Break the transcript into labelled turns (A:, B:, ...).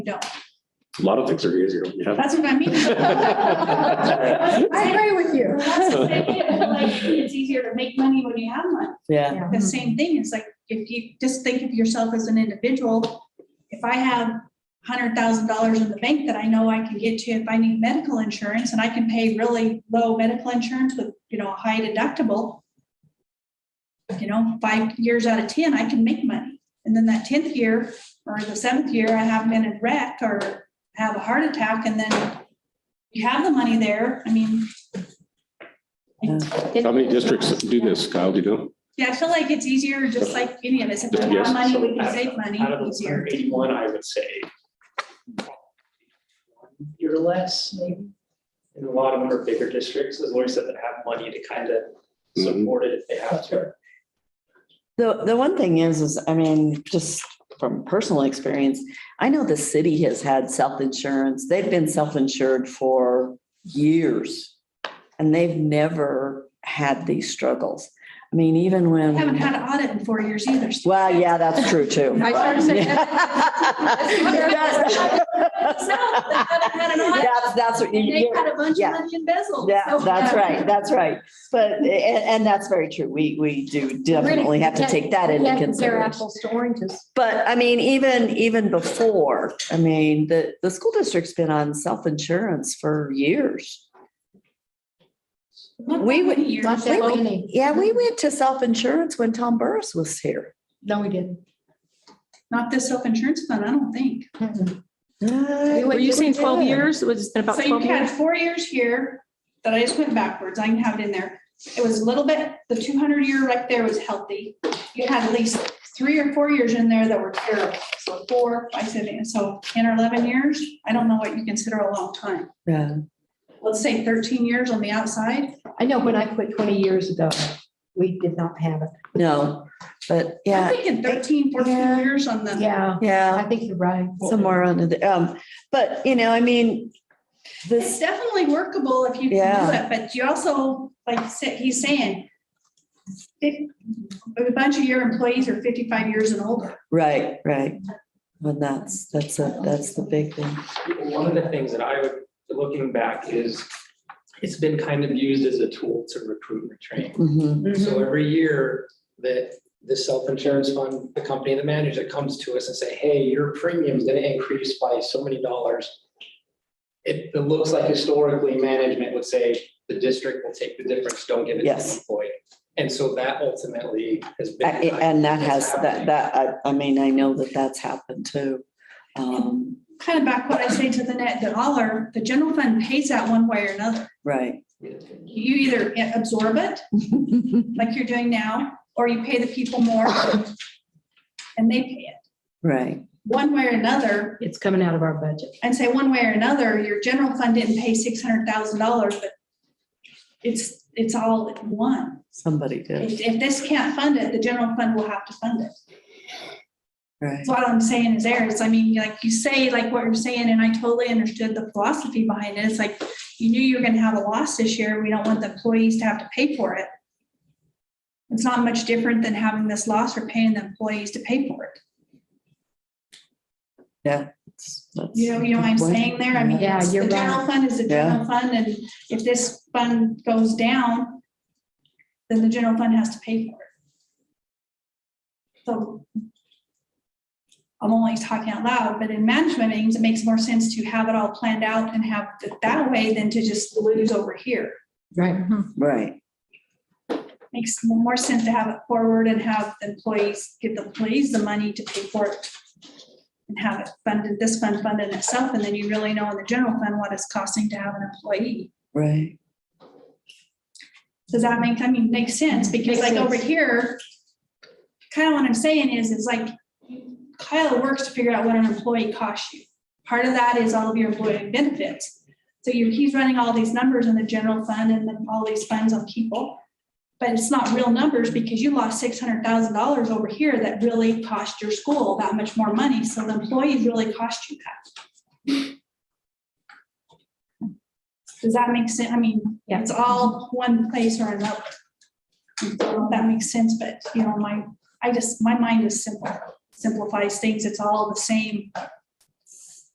A: don't.
B: A lot of things are easier when you have.
A: That's what I mean. I agree with you. That's the same thing, like, It's easier to make money when you have money.
C: Yeah,
A: The same thing is like, if you just think of yourself as an individual, if I have hundred thousand dollars in the bank that I know I can get to if I need medical insurance and I can pay really low medical insurance with, you know, a high deductible. You know, five years out of ten, I can make money. And then that tenth year or the seventh year, I have been in wreck or have a heart attack and then you have the money there. I mean,
B: How many districts do this, Kyle, do you know?
A: yeah, I feel like it's easier, just like any of us, if
B: Just
A: we
B: yes.
A: have money, we can
D: Out of-
A: save money
D: Out of the
A: easier.
D: hundred eighty-one, I would say. Or less, maybe. And a lot of them are bigger districts, as Lori said, that have money to kind of support it if they have to.
C: the, the one thing is, is, I mean, just from personal experience, I know the city has had self-insurance. They've been self-insured for years. And they've never had these struggles. I mean, even
A: I Haven't
C: when,
A: had an audit in four years either. so-
C: well, yeah, that's true too.
E: I started saying that.
A: So, they haven't had an audit,
C: That's, that's what you.
A: They had a bunch
C: yeah.
A: of money embezzled.
C: Yeah,
A: so-
C: that's right, that's right. But, and, and that's very true. We, we do definitely have to take that into
E: Compare
C: consideration.
E: apples to oranges.
C: But I mean, even, even before, I mean, the, the school district's been on self-insurance for years.
A: Not
C: We
A: that
C: would-
A: many years.
E: Not that many.
C: Yeah, we went to self-insurance when Tom Burris was here.
E: No, we didn't.
A: Not this self-insurance fund, I don't think.
E: Were
F: Were you saying twelve years? Was it about
A: So you
F: twelve
A: had
F: years?
A: four years here that I just went backwards. I can have it in there. It was a little bit, the two hundred year right there was healthy. You had at least three or four years in there that were terrible. So four, I said, and so ten or eleven years, I don't know what you consider a long time.
C: Yeah.
A: Let's say thirteen years on the outside.
E: I know when I quit twenty years ago, we did not have it.
C: No, but
A: I'm
C: yeah,
A: thinking 13, 14
C: Yeah.
A: years on the.
E: Yeah, I
C: yeah,
E: think you're right.
C: somewhere under the, um, but you know, I mean,
A: It's
C: this,
A: definitely workable if you can do
C: Yeah.
A: it, but you also, like sa- he's saying, if a bunch of your employees are fifty-five years and older.
C: right, right. Well, that's, that's a, that's the big thing.
D: One of the things that I would, looking back, is it's been kind of used as a tool to recruit and train.
C: Mhm.
D: So every year that the self-insurance fund, the company, the manager comes to us and say, hey, your premium's gonna increase by so many dollars. It, it looks like historically, management would say, the district will take the difference, don't give it to the
C: Yes.
D: employee. And so that ultimately has
C: Uh,
D: been.
C: And that has, that,
D: happening.
C: that, I, I mean, I know that that's happened too. Um,
A: Kind of back what I say to the net, that all our, the general fund pays that one way or another.
C: right.
A: You either absorb it, like you're doing now, or you pay the people more. And they pay it,
C: Right,
A: one way or another,
E: It's coming out of our budget.
A: and say one way or another, your general fund didn't pay six hundred thousand dollars, but it's, it's all in one.
C: somebody did,
A: If, if this can't fund it, the general fund will have to fund it.
C: right.
A: So what I'm saying is there is, I mean, like you say, like what you're saying, and I totally understood the philosophy behind it. It's like, you knew you were gonna have a loss this year. We don't want the employees to have to pay for it. It's not much different than having this loss or paying the employees to pay for it.
C: That's- that's-
A: You know, you know what I'm saying there? I mean,
E: Yeah,
A: it's- the
E: you're
A: general
E: right.
A: fund is a general fund, and if this fund goes down, then the general fund has to pay for it. So I'm only talking out loud, but in management meetings, it makes more sense to have it all planned out and have it that way than to just lose over here.
E: Right.
C: Right,
A: Makes more sense to have it forward and have the employees, give the employees the money to pay for it. And have it funded, this fund funded itself, and then you really know in the general fund what it's costing to have an employee.
C: right.
A: Does that make, I mean, makes sense, because
E: Mm-hmm. Makes
A: like over
E: sense.
A: here, kind of what I'm saying is, is like Kyle works to figure out what an employee costs you. Part of that is all of your employee benefits. So you, he's running all these numbers in the general fund and then all these funds on people. But it's not real numbers because you lost six hundred thousand dollars over here that really cost your school that much more money. So the employees really cost you that. Does that make sense? I mean,
E: Yeah.
A: it's all one place or another. I don't know if That makes sense, but you know, my, I just, my mind is simple, simplifies things. It's all the same